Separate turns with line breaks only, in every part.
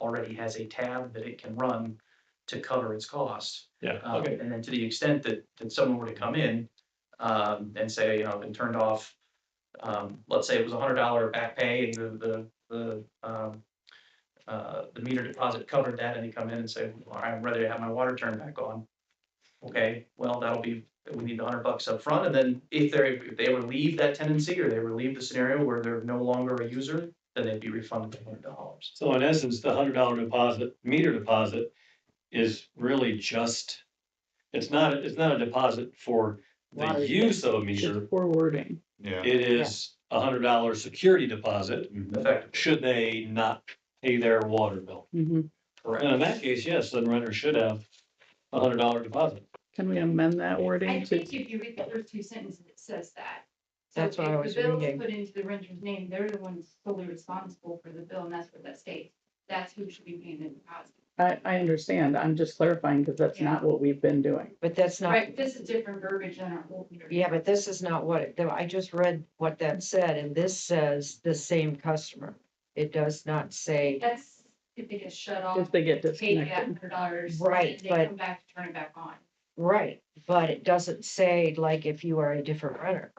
already has a tab that it can run to cover its costs.
Yeah,
Um,
okay,
And then to the extent that, that someone were to come in, um, and say, you know, been turned off, um, let's say it was a hundred dollar back pay and the, the, the, um, uh, the meter deposit covered that and they come in and say, well, I'd rather have my water turned back on. Okay, well, that'll be, we need the hundred bucks up front, and then if they're, if they relieve that tendency or they relieve the scenario where they're no longer a user, then they'd be refunded the hundred dollars.
so in essence, the hundred dollar deposit, meter deposit is really just, it's not, it's not a deposit for the
Water.
use of a
It's
meter.
just poor wording.
Yeah.
It is a hundred dollar security deposit,
Effective,
should they not pay their water bill.
Mhm.
correct.
And in that case, yes, then renter should have a hundred dollar deposit.
Can we amend that
I
wording to,
think if you read the first two sentences, it says that. So
That's what I
if
was
The bill is
reading.
put into the renter's name, they're the ones fully responsible for the bill, and that's what that states. That's who should be paying the deposit.
I, I understand, I'm just clarifying because that's
Yeah.
not what we've been doing.
But that's not,
Right, this is different verbiage than our old meter.
yeah, but this is not what, it- though I just read what that said, and this says the same customer. It does not say,
That's if they get shut off.
If they get
Pay that
disconnected.
hundred dollars.
Right,
They
but-
come back, to turn it back on.
right, but it doesn't say like if you are a different renter.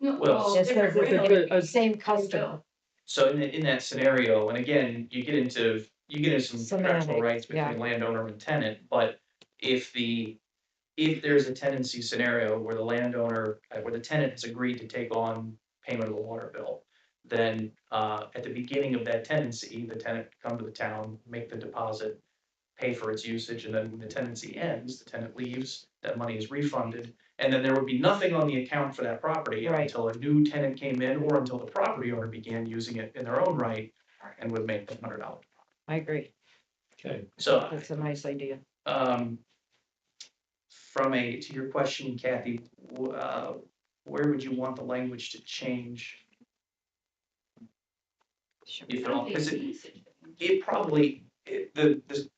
No,
Well,
Well,
It says
different
it's a
renter.
good- a-
Same customer,
So in, the- in that scenario, and again, you get into, you get into some contractual
Semantics,
rights
yeah.
between landowner and tenant, but if the, if there's a tenancy scenario where the landowner, uh, where the tenant has agreed to take on payment of the water bill, then, uh, at the beginning of that tenancy, the tenant can come to the town, make the deposit, pay for its usage, and then when the tenancy ends, the tenant leaves, that money is refunded, and then there would be nothing on the account for that property
Right.
until a new tenant came in or until the property owner began using it in their own right and would make the hundred dollars.
I agree,
Okay,
So,
that's a nice idea.
um, from a, to your question, Kathy, w- uh, where would you want the language to change?
Should
if
be
at all,
something
'cause it-
usage.
It probably, it, the, this,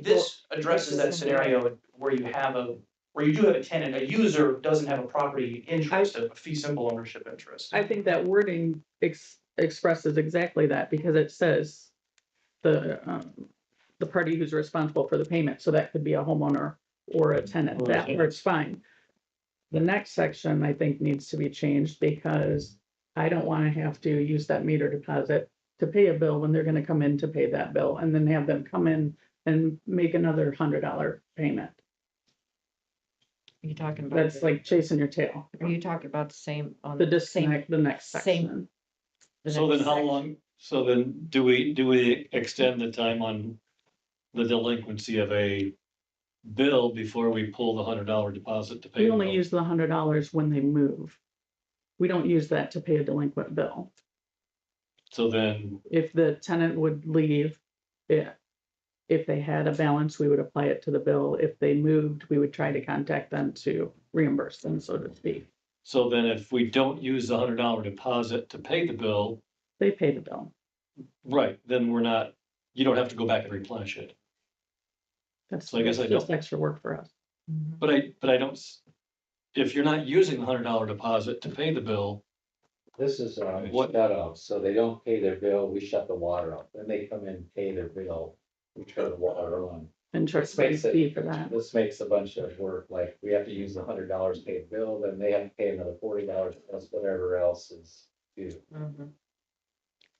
This addresses that scenario where you have a, where you do have a tenant, a user doesn't have a property interest, a fee simple ownership interest.
I think that wording ex- expresses exactly that because it says the, um, the party who's responsible for the payment, so that could be a homeowner or a tenant,
Or a
that
tenant.
part's fine. The next section, I think, needs to be changed because I don't wanna have to use that meter deposit to pay a bill when they're gonna come in to pay that bill, and then have them come in and make another hundred dollar payment.
Are you talking about?
That's
the-
like chasing your tail,
Are you talking about the same on?
the
same-
disconnect, the next
same-
section.
the
so
next
then how
section?
long, so then do we, do we extend the time on the delinquency of a bill before we pull the hundred dollar deposit to pay?
We
the
only
bill?
use the hundred dollars when they move. We don't use that to pay a delinquent bill.
So then,
If the tenant would leave, yeah. If they had a balance, we would apply it to the bill. If they moved, we would try to contact them to reimburse them, so to speak.
so then if we don't use the hundred dollar deposit to pay the bill,
They pay the bill.
right, then we're not, you don't have to go back and replenish it.
That's
So I guess I
that's just
don't-
extra work for us.
Mhm.
But I, but I don't, s- if you're not using the hundred dollar deposit to pay the bill,
This is uh
What-
shut off, so they don't pay their bill, we shut the water off, then they come in, pay their bill, we turn the water on.
And charge
This
a
makes it-
fee for that.
This makes a bunch of work, like, we have to use the hundred dollars to pay the bill, then they have to pay another forty dollars, plus whatever else is due.
Mhm.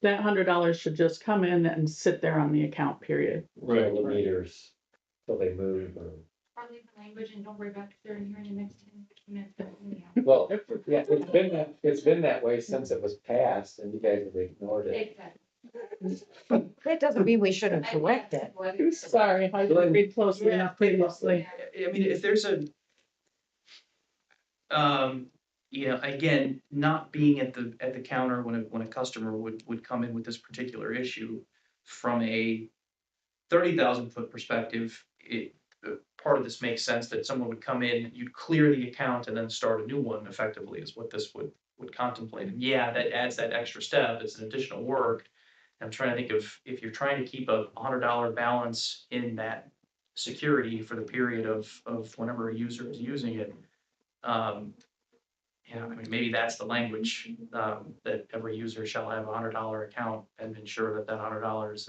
That hundred dollars should just come in and sit there on the account period.
Right.
The meters, till they move, or,
Probably the language and don't worry about if they're in here in the next ten, fifteen minutes. but anyhow.
well, yeah, it's been that, it's been that way since it was passed, and you guys have ignored it.
Exactly.
That doesn't mean we shouldn't correct it.
I'm sorry, I didn't read closely enough previously.
I mean, if there's a, um, you know, again, not being at the, at the counter when a, when a customer would, would come in with this particular issue from a thirty thousand foot perspective, it, uh, part of this makes sense that someone would come in, you'd clear the account and then start a new one effectively is what this would, would contemplate. And yeah, that adds that extra step. It's an additional work. I'm trying to think of, if you're trying to keep a hundred dollar balance in that security for the period of, of whenever a user is using it. Um, Yeah, I mean, maybe that's the language, um, that every user shall have a hundred dollar account and ensure that that hundred dollars